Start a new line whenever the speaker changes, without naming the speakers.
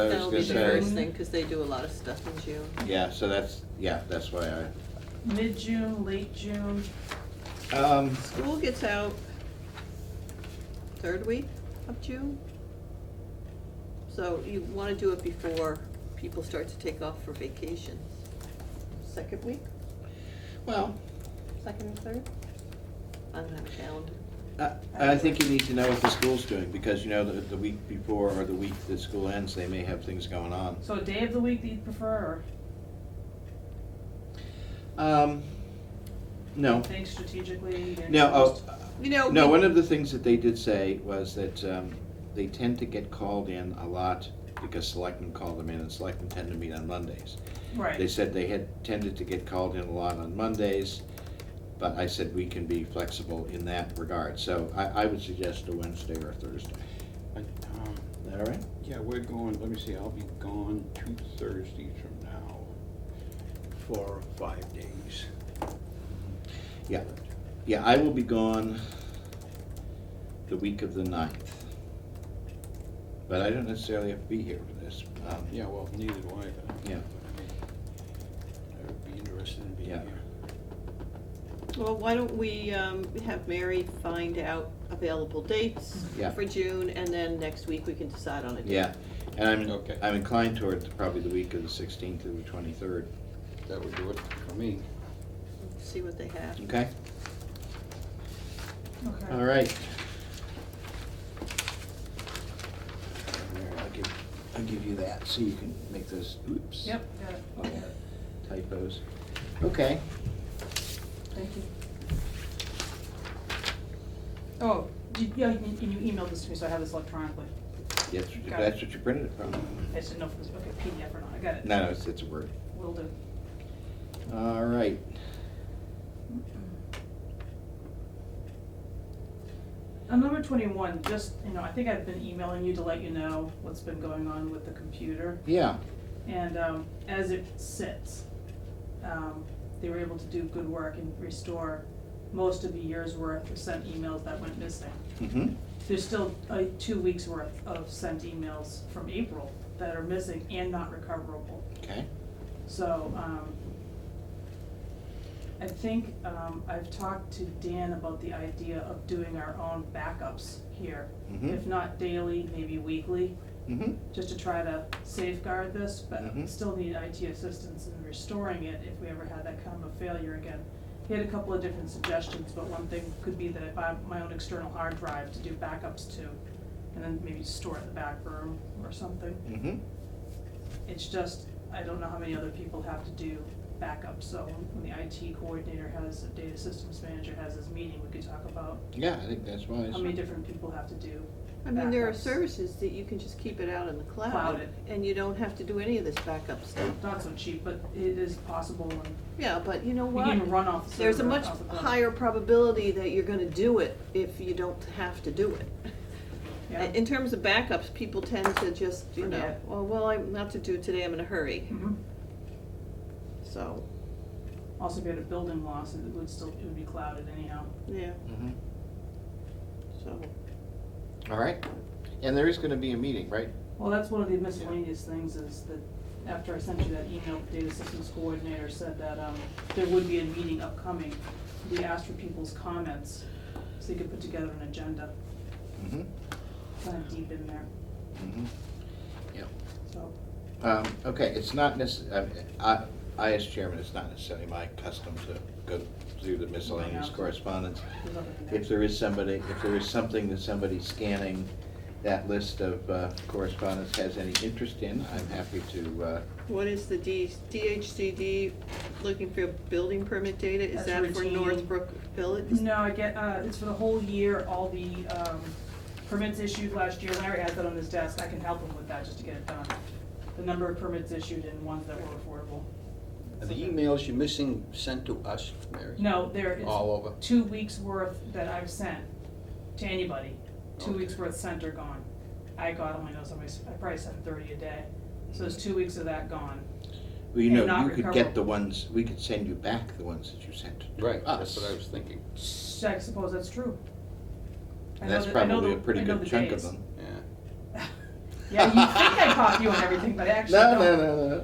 I was
That'll be
gonna
the
say,
first thing, because they do a lot of stuff in June.
yeah, so that's, yeah, that's why
Mid-June, late June,
I, um,
School gets out third week of June. So you want to do it before people start to take off for vacations. Second week,
well,
second and third? I don't have a calendar.
I, I think you need to know what the school's doing, because you know, the, the week before or the week the school ends, they may have things going on.
so a day of the week that you prefer,
Um, no,
or think strategically? and
no,
just-
oh,
You know.
No,
we-
one of the things that they did say was that um, they tend to get called in a lot because selectmen call them in and selectmen tend to meet on Mondays. They
Right,
said they had tended to get called in a lot on Mondays, but I said we can be flexible in that regard. So I, I would suggest a Wednesday or a Thursday.
But, um,
Is that all right?
yeah, we're going, let me see, I'll be gone two Thursdays from now for five days.
Yeah, yeah, I will be gone the week of the ninth. But I don't necessarily have to be here for this. Um,
Yeah, well, neither do I, but.
Yeah.
I would be interested in being
Yeah.
here.
Well, why don't we um, have Mary find out available dates
Yeah.
for June, and then next week we can decide on a date.
Yeah, and I'm,
Okay.
I'm inclined toward probably the week of the sixteenth to the twenty-third,
That would do it for me.
See what they have.
okay? All
okay.
right. There, I'll give, I'll give you that, so you can make those, oops.
Yep, got it,
all the Typos, okay.
thank you. Oh, you, yeah, and you you emailed this to me, so I have this electronically.
That's, what you-
Got it.
that's what you printed it from.
I just didn't know if it was, okay, PDF or not, I got it,
No, no, it's, it's a word.
will do.
All right,
On number twenty-one, just, you know, I think I've been emailing you to let you know what's been going on with the computer.
yeah,
And um, as it sits, um, they were able to do good work and restore most of the year's worth of sent emails that went missing.
mm-hmm,
There's still uh, two weeks' worth of sent emails from April that are missing and not recoverable.
okay,
So um, I think um, I've talked to Dan about the idea of doing our own backups here.
Mhm.
If not daily, maybe weekly
mm-hmm,
just to try to safeguard this, but
Mhm.
still need IT assistance in restoring it if we ever had that kind of a failure again. He had a couple of different suggestions, but one thing could be that I buy my own external hard drive to do backups to, and then maybe store it in the back room or something.
mm-hmm,
It's just, I don't know how many other people have to do backups, so when the IT coordinator has, the data systems manager has his meeting, we could talk about
yeah, I think that's wise.
how many different people have to do
I mean, there are
backups.
services that you can just keep it out in the cloud.
Cloud it.
And you don't have to do any of this backup stuff.
Not so cheap, but it is possible and
Yeah, but you know
We
what?
can even run off the server.
There's a much
off the phone.
higher probability that you're gonna do it if you don't have to do it.
Yeah.
In terms of backups, people tend to just, you know,
Forget.
oh, well, I'm not to do it today, I'm in a hurry,
Mhm.
so,
Also, if you had a building loss, it would still, it would be clouded anyhow.
yeah,
Mhm.
so.
All right, and there is gonna be a meeting, right?
Well, that's one of the miscellaneous things is that after I sent you that email, the data systems coordinator said that, um, there would be a meeting upcoming. We asked for people's comments, so you could put together an agenda,
Mm-hmm,
kind of deep in there,
mm-hmm, yeah.
so.
Um, okay, it's not necess, I, I, as chairman, it's not necessarily my custom to go through the miscellaneous
Yeah.
correspondence.
there's other things.
If there is somebody, if there is something that somebody scanning that list of uh, correspondence has any interest in, I'm happy to, uh,
What is the D, DHCD looking for building permit data, is
That's
that for
routine.
Northbrook Village?
No, I get, uh, it's for the whole year, all the, um, permits issued last year, Larry has that on his desk, I can help him with that just to get it done. The number of permits issued and ones that were affordable.
Are the emails you're missing sent to us, Mary?
No, there,
All
it's
over?
two weeks' worth that I've sent to anybody, two
Okay.
weeks' worth sent or gone. I got them, I know somebody, I probably sent thirty a day, so it's two weeks of that gone.
well, you
And
know,
not
you could get
recoverable.
the ones, we could send you back the ones that you sent to
Right, that's
us.
what I was thinking,
So I suppose that's true. I
And
know
that's
that- I know
probably a
the-
pretty
I know
good
the
chunk of
days.
them.
yeah.
Yeah, you think I caught you on everything, but I actually
No,
don't.
no, no, no.